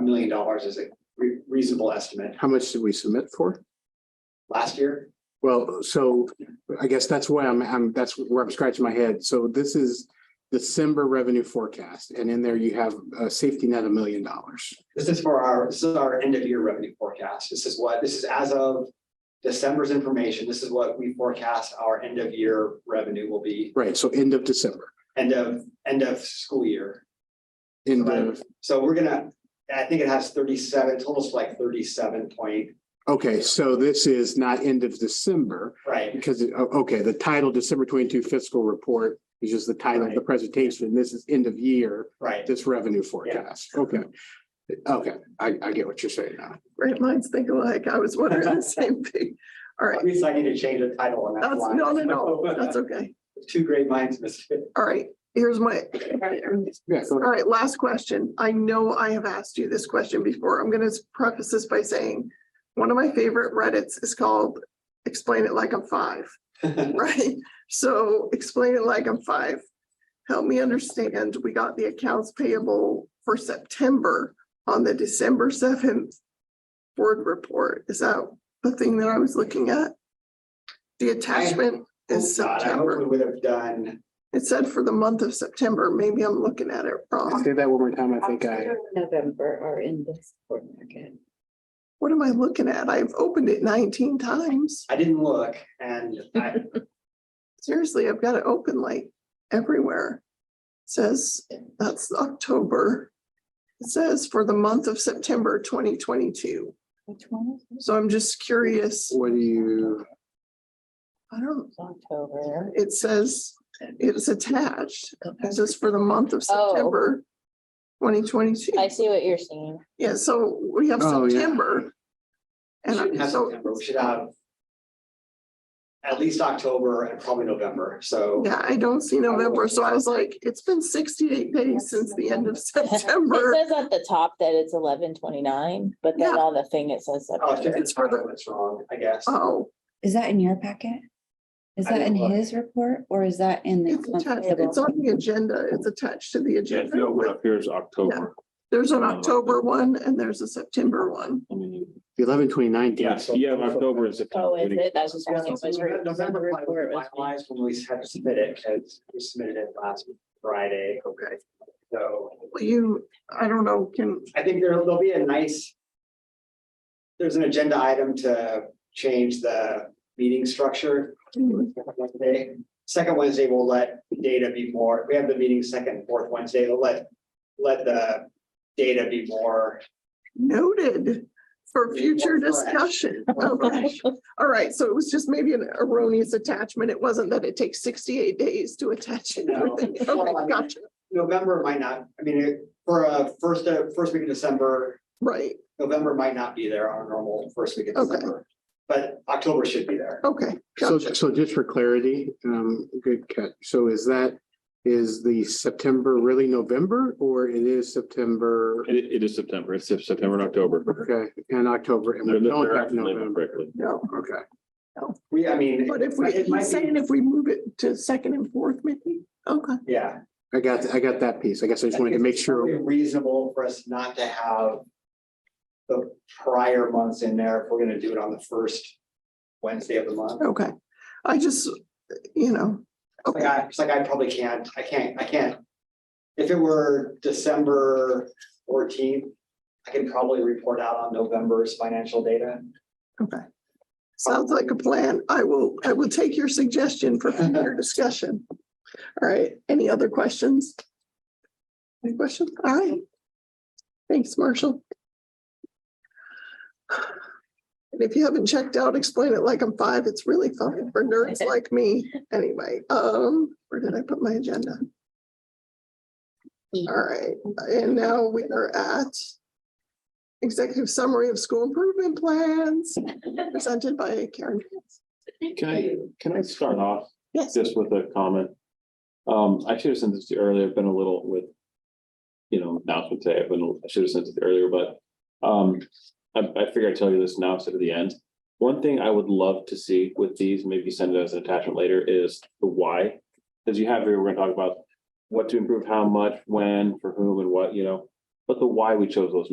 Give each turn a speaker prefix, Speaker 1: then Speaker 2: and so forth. Speaker 1: million dollars is a re- reasonable estimate.
Speaker 2: How much did we submit for?
Speaker 1: Last year,
Speaker 2: Well, so I guess that's why I'm, I'm, that's where I'm scratching my head. So this is December revenue forecast, and in there you have a safety net a million dollars.
Speaker 1: this is for our, this is our end of year revenue forecast. This is what, this is as of December's information. This is what we forecast our end of year revenue will be,
Speaker 2: Right, so end of December,
Speaker 1: end of, end of school year.
Speaker 2: end of,
Speaker 1: So we're gonna, I think it has thirty-seven, totals like thirty-seven point,
Speaker 2: okay, so this is not end of December,
Speaker 1: right?
Speaker 2: because, o- okay, the title December twenty-two fiscal report is just the title of the
Speaker 1: Right.
Speaker 2: presentation. This is end of year,
Speaker 1: Right.
Speaker 2: this revenue forecast. Okay. Okay, I, I get what you're saying now.
Speaker 3: Great minds think alike. I was wondering the same thing. All right,
Speaker 1: At least I need to change the title on that.
Speaker 3: that's,
Speaker 1: line.
Speaker 3: no, no, no, that's okay.
Speaker 1: Two great minds, misfit.
Speaker 3: All right, here's my,
Speaker 2: Yeah, go
Speaker 3: all
Speaker 2: ahead.
Speaker 3: right, last question. I know I have asked you this question before. I'm gonna preface this by saying one of my favorite Reddits is called Explain It Like I'm Five, right? So explain it like I'm five. Help me understand, we got the accounts payable for September on the December seventh board report. Is that the thing that I was looking at? The attachment is
Speaker 1: Oh, God, I hope
Speaker 3: September.
Speaker 1: we would have done,
Speaker 3: It said for the month of September. Maybe I'm looking at it wrong.
Speaker 2: Say that one more time. I think I,
Speaker 4: November are in this board packet.
Speaker 3: What am I looking at? I've opened it nineteen times.
Speaker 1: I didn't look and I,
Speaker 3: Seriously, I've got it open like everywhere. It Says that's October. It says for the month of September twenty twenty-two.
Speaker 4: Which one is this?
Speaker 3: So I'm just curious.
Speaker 2: what do you,
Speaker 3: I don't,
Speaker 4: October.
Speaker 3: it says it's attached. It says for the month of
Speaker 4: Oh.
Speaker 3: September twenty
Speaker 4: I
Speaker 3: twenty-two.
Speaker 4: see what you're saying.
Speaker 3: Yeah, so we have
Speaker 2: Oh, yeah.
Speaker 3: September.
Speaker 1: we
Speaker 3: And
Speaker 1: shouldn't
Speaker 3: I-
Speaker 1: have
Speaker 3: so,
Speaker 1: September, we should have at least October and probably November, so.
Speaker 3: yeah, I don't see November. So I was like, it's been sixty-eight days since the end of September.
Speaker 4: It says at the top that it's eleven twenty-nine, but then
Speaker 3: Yeah.
Speaker 4: on the thing it says.
Speaker 1: Oh, it's
Speaker 4: September.
Speaker 1: just-
Speaker 3: It's for the-
Speaker 1: That's wrong, I guess.
Speaker 3: Oh,
Speaker 5: Is that in your packet? Is
Speaker 1: I
Speaker 5: that in
Speaker 1: didn't look.
Speaker 5: his report or is that in the?
Speaker 3: it's attached. It's on the agenda. It's attached to the
Speaker 6: Yeah, if you open
Speaker 3: agenda.
Speaker 6: up, here's October.
Speaker 3: There's an October one and there's a September one.
Speaker 6: I mean,
Speaker 2: the eleven twenty-nine?
Speaker 6: yeah, yeah, October is the.
Speaker 4: Oh, is it? That's just.
Speaker 1: So
Speaker 4: what it was written.
Speaker 1: November
Speaker 4: September
Speaker 1: probably
Speaker 4: report
Speaker 1: was
Speaker 4: was-
Speaker 1: finalized when we had to submit it, because we submitted it last Friday,
Speaker 3: Okay.
Speaker 1: so.
Speaker 3: Well, you, I don't know, can,
Speaker 1: I think there, there'll be a nice. There's an agenda item to change the meeting structure. Wednesday. Second Wednesday, we'll let data be more, we have the meeting second, and fourth Wednesday, we'll let, let the data be more.
Speaker 3: noted for future discussion. Okay. All right, so it was just maybe an erroneous attachment. It wasn't that it takes sixty-eight days to attach it.
Speaker 1: No.
Speaker 3: Okay, gotcha.
Speaker 1: November might not, I mean, it- for a first, uh, first week of December,
Speaker 3: Right,
Speaker 1: November might not be there on a normal first week of
Speaker 3: Okay.
Speaker 1: December. But October should be there.
Speaker 3: okay,
Speaker 2: So,
Speaker 3: gotcha.
Speaker 2: so just for clarity, um, good catch. So is that, is the September really November or it is September?
Speaker 6: It, it is September, it's September and October.
Speaker 2: Okay, and October and
Speaker 6: They're-
Speaker 2: we
Speaker 6: they're
Speaker 2: don't have
Speaker 6: actually labeled
Speaker 2: November.
Speaker 6: correctly.
Speaker 3: No,
Speaker 2: Okay,
Speaker 1: We, I mean.
Speaker 3: but if we,
Speaker 1: it might be-
Speaker 3: he's saying if we move it to second and fourth, maybe, okay.
Speaker 1: Yeah.
Speaker 2: I got, I got that piece. I guess I just wanted to make sure.
Speaker 1: It's probably Reasonable for us not to have. The prior months in there, if we're gonna do it on the first Wednesday of the month.
Speaker 3: Okay, I just, you know,
Speaker 1: It's Like I, it's like I probably can't, I can't, I can't. If it were December fourteenth, I can probably report out on November's financial data.
Speaker 3: okay. Sounds like a plan. I will, I will take your suggestion for future discussion. All right, any other questions? Any questions? All right. Thanks, Marshall. And if you haven't checked out, explain it like I'm five. It's really fun for nerds like me. Anyway, um, where did I put my agenda? All right, and now we are at executive summary of school improvement plans presented by Karen.
Speaker 6: Can I, can I start off
Speaker 3: Yes.
Speaker 6: just with a comment? Um, I should have sent this to you earlier, I've been a little with. You know, announcement today, I've been, I should have sent it earlier, but, um, I, I figure I'd tell you this now instead of the end. One thing I would love to see with these, maybe send it as an attachment later, is the why. As you have here, we're gonna talk about what to improve, how much, when, for whom and what, you know, but the why we chose those